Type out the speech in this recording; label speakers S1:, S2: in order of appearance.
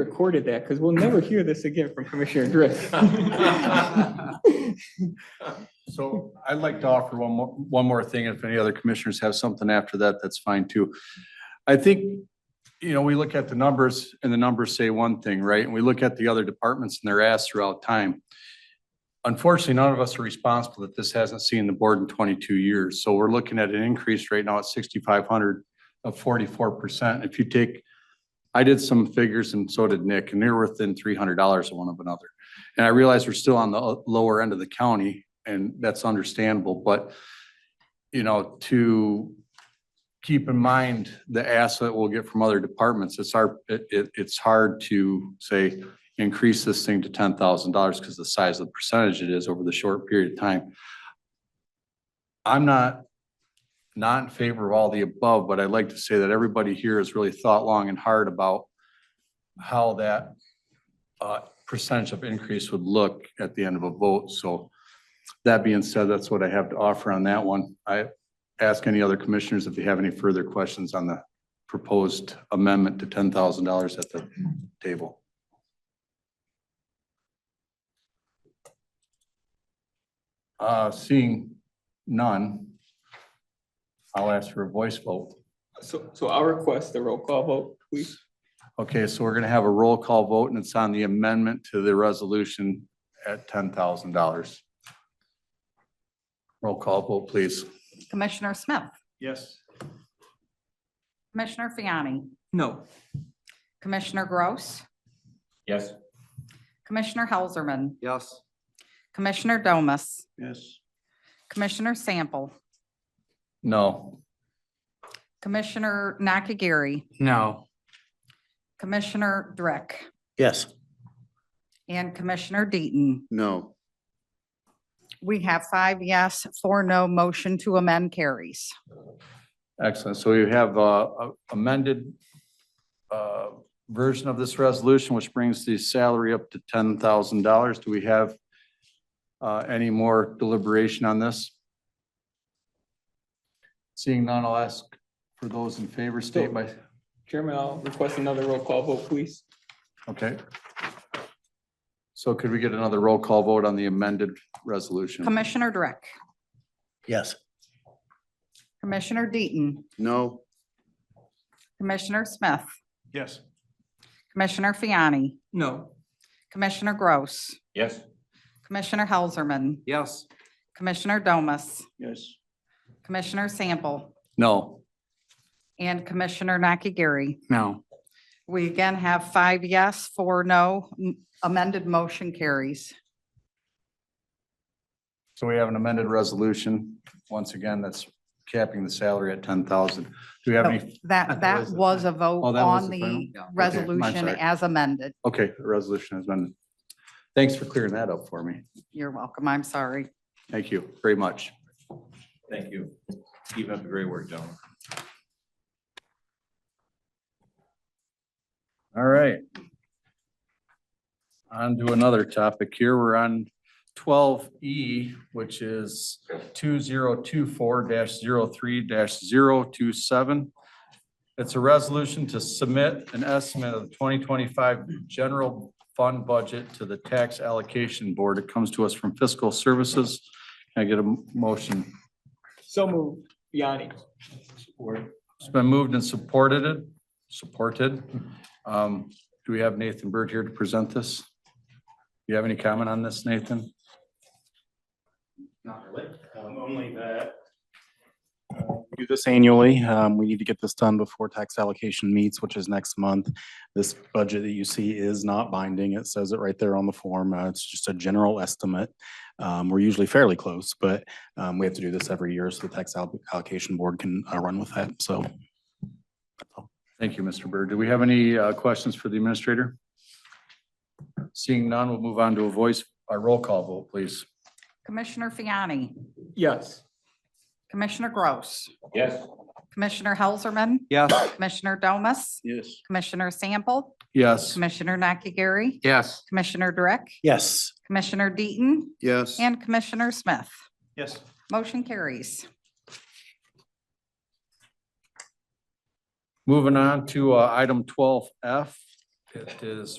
S1: recorded that because we'll never hear this again from Commissioner Drift.
S2: So I'd like to offer one more, one more thing. If any other commissioners have something after that, that's fine too. I think, you know, we look at the numbers and the numbers say one thing, right? And we look at the other departments and their ass throughout time. Unfortunately, none of us are responsible that this hasn't seen the board in twenty-two years. So we're looking at an increase right now at sixty-five hundred of forty-four percent. If you take, I did some figures and so did Nick, and they're within three hundred dollars of one of another. And I realize we're still on the uh, lower end of the county, and that's understandable, but, you know, to keep in mind the asset we'll get from other departments, it's our, it, it- it's hard to say, increase this thing to ten thousand dollars because the size of the percentage it is over the short period of time. I'm not, not in favor of all the above, but I'd like to say that everybody here has really thought long and hard about how that uh, percentage of increase would look at the end of a vote. So that being said, that's what I have to offer on that one. I ask any other commissioners if they have any further questions on the proposed amendment to ten thousand dollars at the table. Uh, seeing none, I'll ask for a voice vote.
S1: So, so I'll request a roll call vote, please.
S2: Okay, so we're gonna have a roll call vote and it's on the amendment to the resolution at ten thousand dollars. Roll call vote, please.
S3: Commissioner Smith,
S2: Yes.
S3: Commissioner Fiani,
S1: No.
S3: Commissioner Gross,
S4: Yes.
S3: Commissioner Helserman,
S4: Yes.
S3: Commissioner Domas,
S4: Yes.
S3: Commissioner Sample,
S2: No.
S3: Commissioner Nakagiri,
S4: No.
S3: Commissioner Drick,
S4: Yes.
S3: and Commissioner Deaton.
S4: No.
S3: We have five yes, four no, motion to amend carries.
S2: Excellent. So you have uh, a amended uh, version of this resolution, which brings the salary up to ten thousand dollars. Do we have uh, any more deliberation on this? Seeing none, I'll ask for those in favor, state by,
S1: Chairman, I'll request another roll call vote, please.
S2: okay. So could we get another roll call vote on the amended resolution?
S3: Commissioner Drick,
S4: Yes.
S3: Commissioner Deaton,
S4: No.
S3: Commissioner Smith,
S2: Yes.
S3: Commissioner Fiani,
S1: No.
S3: Commissioner Gross,
S4: Yes.
S3: Commissioner Helserman,
S4: Yes.
S3: Commissioner Domas,
S4: Yes.
S3: Commissioner Sample,
S2: No.
S3: and Commissioner Nakagiri.
S4: No.
S3: We again have five yes, four no. M- Amended motion carries.
S2: So we have an amended resolution, once again, that's capping the salary at ten thousand. Do we have any
S3: That, that was a vote
S2: Oh, that was
S3: on
S2: the
S3: the
S2: final?
S3: resolution
S2: sorry.
S3: as amended.
S2: Okay, the resolution has been, thanks for clearing that up for me.
S3: You're welcome. I'm sorry.
S2: Thank you very much.
S5: Thank you. Keep up the great work, gentlemen.
S2: All right. On to another topic here. We're on twelve E, which is two zero two four 3 27 It's a resolution to submit an estimate of the twenty twenty-five general fund budget to the tax allocation board. It comes to us from fiscal services. Can I get a m- motion?
S1: So moved. Yanni. Support.
S2: It's been moved and supported it, supported. Um, do we have Nathan Bird here to present this? You have any comment on this, Nathan?
S6: Not really, um, only that. uh, we Do this annually. Um, we need to get this done before tax allocation meets, which is next month. This budget that you see is not binding. It says it right there on the form. Uh, it's just a general estimate. Um, we're usually fairly close, but, um, we have to do this every year so the tax al- allocation board can, uh, run with that, so.
S2: Thank you, Mr. Bird. Do we have any, uh, questions for the administrator? Seeing none, we'll move on to a voice, a roll call vote, please.
S3: Commissioner Fiani,
S1: Yes.
S3: Commissioner Gross,
S4: Yes.
S3: Commissioner Helserman,
S4: Yes.
S3: Commissioner Domas,
S4: Yes.
S3: Commissioner Sample,
S2: Yes,
S3: Commissioner Nakagiri,
S4: Yes.
S3: Commissioner Drick,
S6: Yes.
S3: Commissioner Deaton,
S4: Yes.
S3: and Commissioner Smith.
S4: Yes.
S3: Motion carries.
S2: moving on to, uh, item twelve F It is